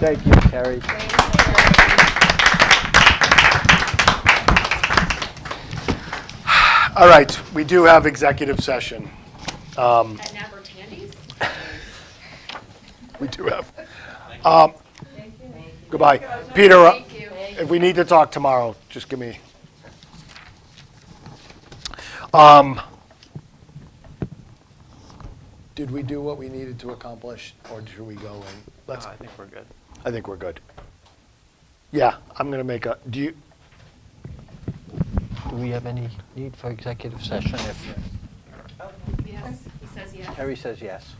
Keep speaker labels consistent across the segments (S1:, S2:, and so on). S1: Thank you, Carrie.
S2: All right, we do have executive session.
S3: At Napper Tandy's?
S2: We do have. Um, Goodbye. Peter, uh,
S3: Thank you.
S2: if we need to talk tomorrow, just give me. Um, Did we do what we needed to accomplish, or should we go and, let's,
S4: I think we're good.
S2: I think we're good. Yeah, I'm going to make a, do you,
S4: Do we have any need for executive session if
S3: Yes, he says yes.
S4: Harry says yes?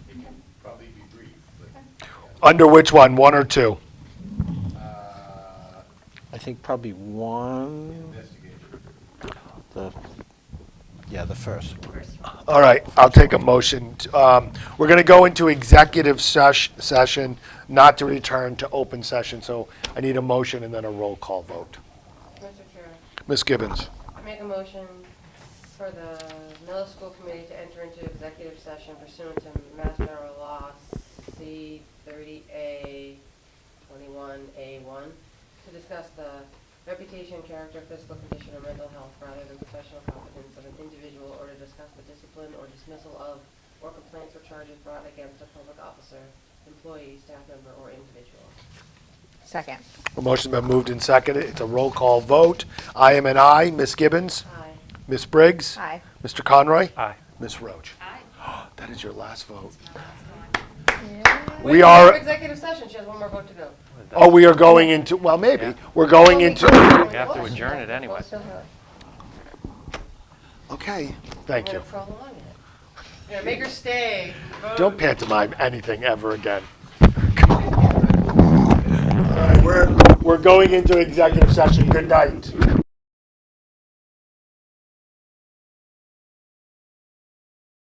S2: under which one, one or two?
S4: I think probably one. The, yeah, the first.
S2: All right, I'll take a motion. t- um, We're going to go into executive sesh- session, not to return to open session, so I need a motion and then a roll call vote.
S5: Mr. Chair,
S2: Ms. Gibbons,
S5: I make a motion for the middle school committee to enter into executive session pursuant to Mass General Law C thirty A twenty-one A one to discuss the reputation, character, physical condition, or mental health rather than professional competence of an individual or to discuss the discipline or dismissal of or complaints or charges brought against a public officer, employee, staff member, or individual.
S6: Second.
S2: the motion's been moved and seconded. It's a roll call vote. I am an aye. Ms. Gibbons?
S5: Aye.
S2: Ms. Briggs?
S6: Aye.
S2: Mr. Conroy?
S4: Aye.
S2: Ms. Roach?
S3: Aye.
S2: That is your last vote.
S5: Wait,
S2: We are,
S5: Executive session, she has one more vote to go.
S2: oh, we are going into, well, maybe, we're going into,
S5: We
S4: have to adjourn it anyway.
S2: okay, thank you.
S5: prolong it. Yeah, make her stay.
S2: Don't pantomime anything ever again. All right, we're, we're going into executive session. Good night.